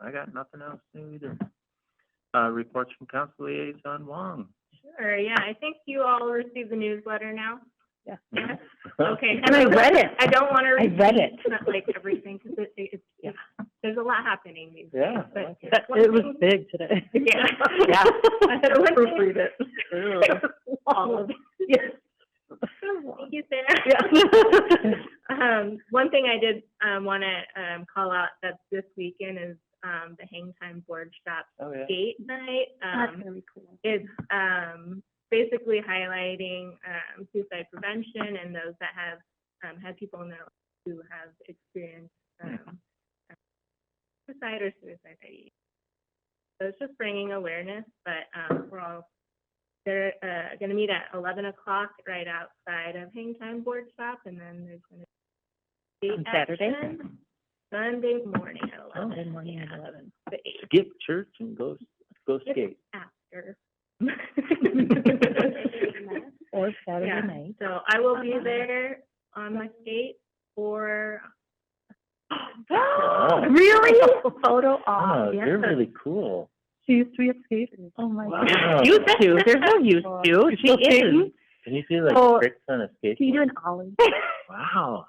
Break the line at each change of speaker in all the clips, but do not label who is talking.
I got nothing else new either. Uh, reports from council liaison Wong.
Sure, yeah, I think you all received the newsletter now.
Yeah.
Yes, okay.
And I read it.
I don't want to
I
repeat,
read it.
like, everything, because it, it's,
Yeah.
there's a lot happening these days.
Yeah. I
But
like it.
That-
one
It was
thing-
big today.
Yeah.
Yeah.
I had to proofread
it.
Ew.
All of it. Thank you, Sarah. Um, one thing I did, um, want to, um, call out that this weekend is, um, the Hang Time Board Shop
Oh, yeah.
Date Night.
That's
Um,
gonna be cool.
it's um, basically highlighting um, suicide prevention and those that have um, had people in their life who have experienced
Hmm.
um, suicide or suicide ideation. So it's just bringing awareness, but um, we're all they're uh, going to meet at 11 o'clock right outside of Hangtime Board Shop, and then there's going to be
On Saturday?
action Sunday morning at 11.
Saturday morning at
yeah.
eleven.
The eight
Skip church and go, go skate.
after.
Or
Yeah.
Saturday night.
So I will be there on my skate for,
Wow.
Really? Photo
Oh,
op,
you're
Oh, yes.
really cool.
She used to be a skater. Oh, my
Wow.
God. Used to, there's no used to, she is.
Can you do like
Oh,
tricks on a skateboard?
Can you do an ollie?
Wow.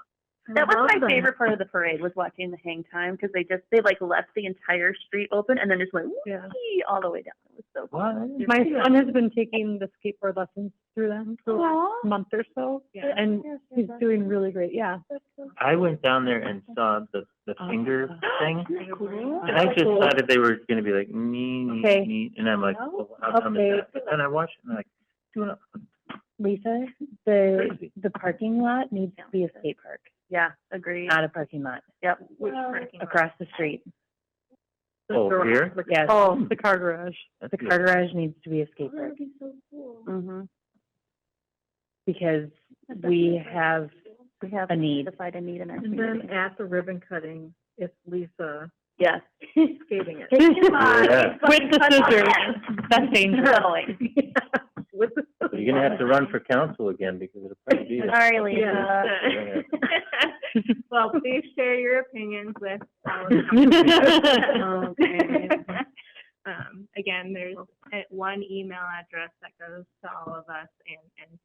That was my
Awesome.
favorite part of the parade was watching the hang time because they just they like left the entire street open and then just went
Yeah.
wee all the way down. It was so cool.
What?
My son has been taking the skateboard lessons through them for a
Aww.
month or so,
Yeah.
and he's doing really great, yeah.
I went down there and saw the, the
Oh.
finger thing.
Cool.
And I just thought that they were gonna be like, nee, nee,
Okay.
nee, and I'm like,
No?
well, how come is
Okay.
that? But then I watched it and I'm like, doing it.
Lisa, the,
Crazy.
the parking lot needs to be a skate park,
Yeah, agreed.
not a parking lot,
Yep.
Which parking lot?
across the street.
Oh, here?
Yes,
Oh.
the car garage.
That's
The
good.
car garage needs to be a skate park
Mm-hmm.
because we have
We have
a need.
identified a need in our
And then
community.
at the ribbon cutting, it's Lisa
Yes.
skating it
Yeah.
With the scissors, that's dangerous.
Totally.
with the.
You're gonna have to run for council again because it'll probably be there.
Sorry, Lisa.
So- Well, please share your opinions with our
Okay.
Um, again, there's uh, one email address that goes to all of us and,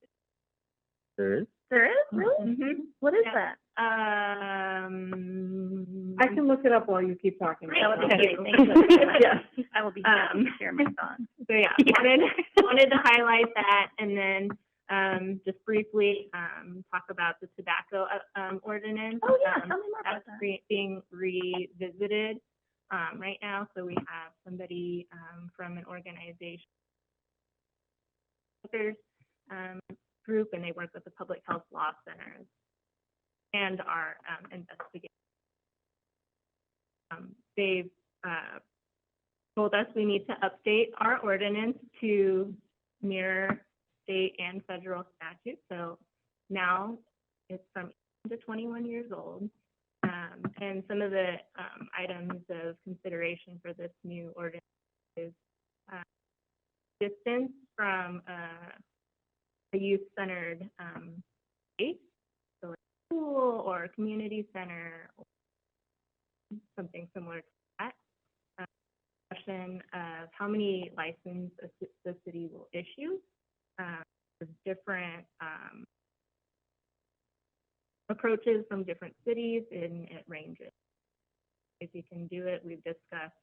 There is?
There is really?
and.
What is
Yeah.
that?
Um.
I can look it up while you keep talking.
Great.
That would be
Okay.
great. Thank you so much.
Yeah.
I will be happy to
Um,
share my thoughts.
So yeah, wanted, wanted to highlight that and then, um, just briefly, um, talk about the tobacco, uh, um, ordinance.
Oh yeah,
Um,
tell me more about
That's
that.
re- being revisited, um, right now, so we have somebody, um, from an organization smokers, um, group, and they work with the Public Health Law Centers and our, um, investigators. Um, they've, uh, told us we need to update our ordinance to mirror state and federal statutes. So now it's from 18 to twenty-one years old. Um, and some of the, um, items of consideration for this new ordinance is, uh, distance from, uh, a youth-centered, um, space. So like school or a community center, or something similar to that. Um, Question of how many licenses a ci- the city will issue, um, for different, um, approaches from different cities and it ranges. If you can do it, we've discussed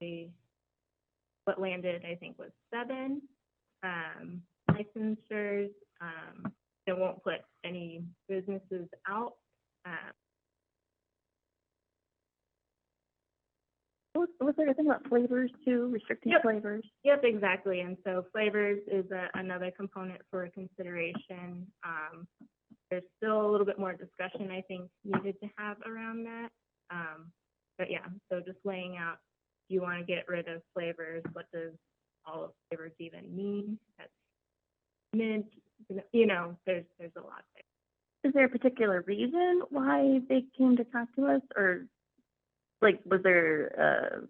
the, what landed, I think, was seven, um, licensures. Um, it won't put any businesses out. Um,
Was, was there a thing about flavors too, restricting
Yep.
flavors?
Yep, exactly. And so flavors is a, another component for consideration. Um, there's still a little bit more discussion, I think, needed to have around that. Um, but yeah, so just laying out, do you want to get rid of flavors? What does all of flavors even mean? That's mint, you know, there's, there's a lot there.
Is there a particular reason why they came to talk to us or like was there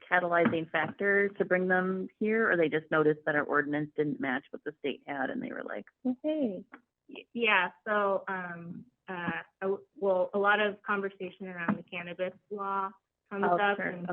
a catalyzing factor to bring them here or they just noticed that our ordinance didn't match what the state had and they were like,
Hey,
Y- Yeah, so, um, uh, I w- well, a lot of conversation around the cannabis law comes
Oh,
up
sure.
and